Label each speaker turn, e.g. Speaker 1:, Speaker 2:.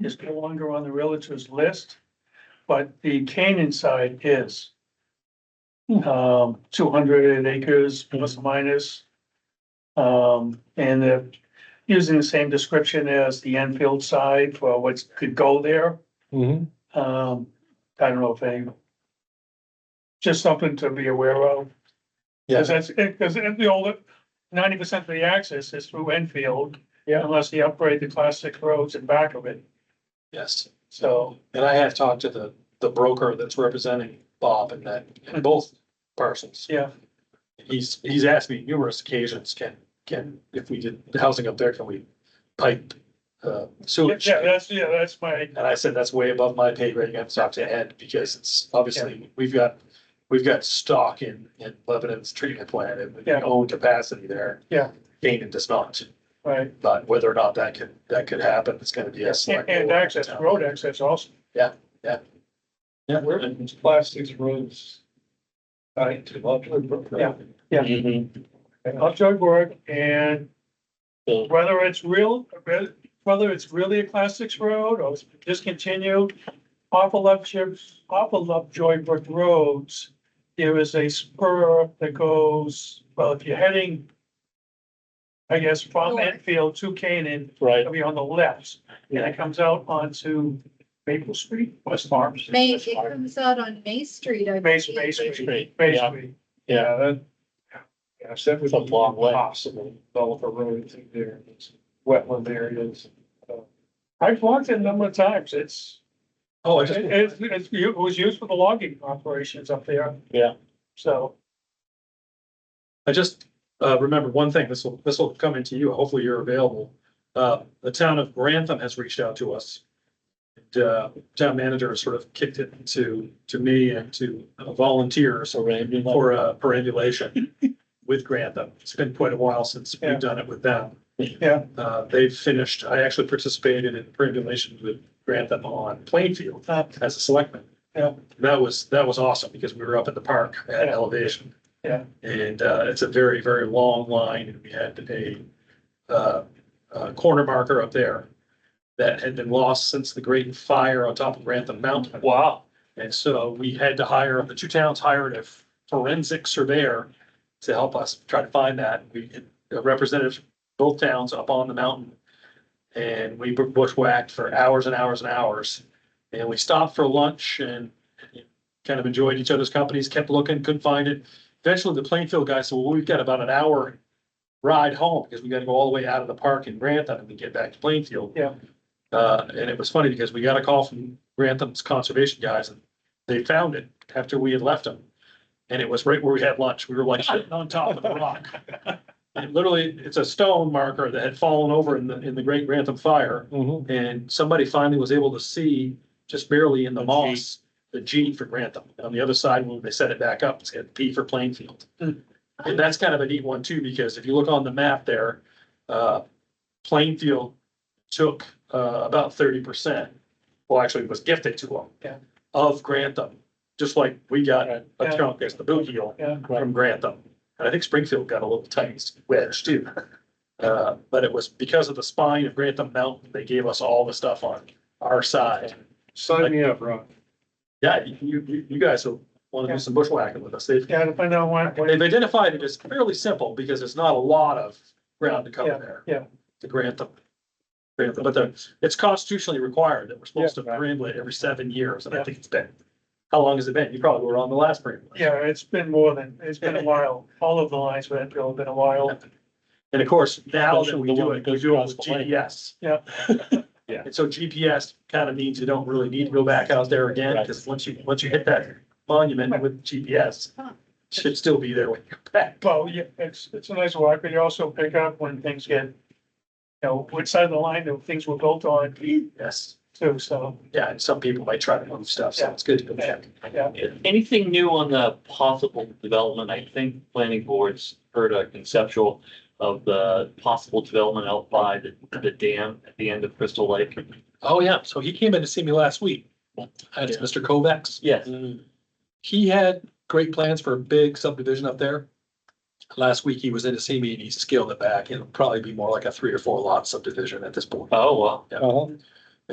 Speaker 1: is no longer on the realtor's list, but the Canaan side is. Um, two hundred acres plus or minus. Um, and they're using the same description as the Enfield side for what could go there.
Speaker 2: Mm-hmm.
Speaker 1: Um, I don't know if any. Just something to be aware of.
Speaker 2: Yeah.
Speaker 1: Cause that's, cause if the older, ninety percent of the access is through Enfield.
Speaker 2: Yeah.
Speaker 1: Unless they upgrade the classic roads in back of it,
Speaker 2: Yes,
Speaker 1: so,
Speaker 2: and I have talked to the, the broker that's representing Bob and that, and both parcels.
Speaker 1: yeah,
Speaker 2: He's, he's asked me numerous occasions, can, can, if we did the housing up there, can we pipe, uh,
Speaker 1: yeah,
Speaker 2: sewage?
Speaker 1: that's, yeah, that's my,
Speaker 2: And I said, that's way above my pay grade, I have to talk to Ed, because it's obviously, we've got, we've got stock in, in Lebanon's treatment plant and we
Speaker 1: Yeah.
Speaker 2: own capacity there.
Speaker 1: Yeah.
Speaker 2: Canaan does not,
Speaker 1: right,
Speaker 2: but whether or not that could, that could happen, it's gonna be a.
Speaker 1: and
Speaker 2: select
Speaker 1: and
Speaker 2: board
Speaker 1: access,
Speaker 2: town.
Speaker 1: road access also,
Speaker 2: Yeah.
Speaker 3: plastics roads. Tied to Lovejoy Brook.
Speaker 1: Yeah. Yeah.
Speaker 2: Mm-hmm.
Speaker 1: Upjoy Brook, and whether it's real, whether it's really a classics road or it's discontinued, off of Lovejoy, off of Lovejoy Brook Roads, there is a spur that goes, well, if you're heading, I guess, from
Speaker 4: North.
Speaker 1: Enfield to Canaan,
Speaker 2: Right,
Speaker 1: it'll be on the left, and it comes out onto Maple Street, West Farm. Street,
Speaker 4: May,
Speaker 1: West
Speaker 4: it
Speaker 1: Farm.
Speaker 4: comes out on May Street. I
Speaker 1: Main,
Speaker 4: believe.
Speaker 1: Main Street,
Speaker 2: Street,
Speaker 1: Main
Speaker 2: yeah.
Speaker 1: Street,
Speaker 2: yeah,
Speaker 3: that- Yeah, that was
Speaker 2: It's a long way.
Speaker 3: Possible, develop a road through there, it's wetland areas.
Speaker 1: I've walked it a number of times, it's.
Speaker 2: oh, I
Speaker 1: It,
Speaker 2: just,
Speaker 1: it's- it's, it was used for the logging operations up there.
Speaker 2: Yeah.
Speaker 1: So,
Speaker 2: I just, uh, remembered one thing, this will, this will come into you, hopefully you're available. Uh, the town of Grantham has reached out to us. And, uh, town manager sort of kicked it to, to me and to volunteers for uh, perambulation with Grantham. It's been quite a while since
Speaker 1: Yeah.
Speaker 2: we've done it with them.
Speaker 1: Yeah.
Speaker 2: Uh, they've finished, I actually participated in perambulation with Grantham on Plainfield
Speaker 1: uh,
Speaker 2: as a selectman.
Speaker 1: Yeah.
Speaker 2: That was, that was awesome because we were up at the park at
Speaker 1: Yeah.
Speaker 2: elevation.
Speaker 1: Yeah.
Speaker 2: And, uh, it's a very, very long line and we had a, uh, a corner marker up there that had been lost since the great fire on top of Grantham Mountain. Wow. And so we had to hire, the two towns hired a forensic surveyor to help us try to find that. We had a representative from both towns up on the mountain. And we bushwhacked for hours and hours and hours. And we stopped for lunch and kind of enjoyed each other's companies, kept looking, couldn't find it. Eventually, the Plainfield guy said, well, we've got about an hour ride home because we gotta go all the way out of the park in Grantham and then get back to Plainfield.
Speaker 1: Yeah.
Speaker 2: Uh, and it was funny because we got a call from Grantham's conservation guys and they found it after we had left them. And it was right where we had lunch. We were like sitting on top of the rock. And literally, it's a stone marker that had fallen over in the, in the Great Grantham Fire.
Speaker 3: Mm-hmm.
Speaker 2: And somebody finally was able to see just barely in the
Speaker 3: The G.
Speaker 2: moss, the G for Grantham. On the other side, when they set it back up, it's got P for Plainfield.
Speaker 1: Hmm.
Speaker 2: And that's kind of a neat one too, because if you look on the map there, uh, Plainfield took, uh, about thirty percent. Well, actually it was gifted to them.
Speaker 1: Yeah.
Speaker 2: Of Grantham, just like we got a
Speaker 1: Yeah.
Speaker 2: chunk as the boot heel
Speaker 1: yeah,
Speaker 2: from Grantham. And I think Springfield got a little tight wedge too. Uh, but it was because of the spine of Grantham Mountain, they gave us all the stuff on our side.
Speaker 3: Sign me up, Rob.
Speaker 2: Yeah, you, you, you guys will wanna
Speaker 1: Yeah.
Speaker 2: do some bushwhacking with us. They've,
Speaker 1: yeah, to find out what, what-
Speaker 2: they've identified it as fairly simple because there's not a lot of ground to cover there.
Speaker 1: yeah.
Speaker 2: The Grantham. Grantham, but the, it's constitutionally required that we're supposed to
Speaker 1: Yeah.
Speaker 2: perambulate every seven years, and
Speaker 1: Yeah.
Speaker 2: I think it's been. How long has it been? You probably were on the last perambulation.
Speaker 1: yeah, it's been more than, it's been a while, all of the lines for Enfield have been a while.
Speaker 2: And of course, now that
Speaker 5: Especially
Speaker 2: we
Speaker 5: the
Speaker 2: do
Speaker 5: one
Speaker 2: it,
Speaker 5: that
Speaker 2: we
Speaker 5: goes
Speaker 2: do it
Speaker 5: across
Speaker 2: with
Speaker 5: the lake.
Speaker 2: GPS.
Speaker 1: Yeah.
Speaker 5: Yeah.
Speaker 2: And so GPS kind of means you don't really need to go back out there again,
Speaker 5: Right.
Speaker 2: because once you, once you hit that monument with GPS,
Speaker 4: Huh.
Speaker 2: should still be there when you come back.
Speaker 1: Well, yeah, it's, it's a nice walk, but you also pick up when things get, you know, which side of the line that things were built on
Speaker 2: Yes,
Speaker 1: too, so,
Speaker 2: yeah, and some people might try to move stuff, so
Speaker 1: Yeah.
Speaker 2: it's good to go check.
Speaker 1: yeah.
Speaker 5: Anything new on the possible development? I think planning boards heard a conceptual of the possible development out by the, the dam at the end of Crystal Lake.
Speaker 2: Oh, yeah, so he came in to see me last week. That's
Speaker 5: Yeah.
Speaker 2: Mr. Kovacs.
Speaker 5: Yes,
Speaker 2: Mm. He had great plans for a big subdivision up there. Last week, he was in to see me and he scaled it back. It'll probably be more like a three or four lot subdivision at this point.
Speaker 5: oh, wow.
Speaker 2: Yeah.
Speaker 3: Uh-huh.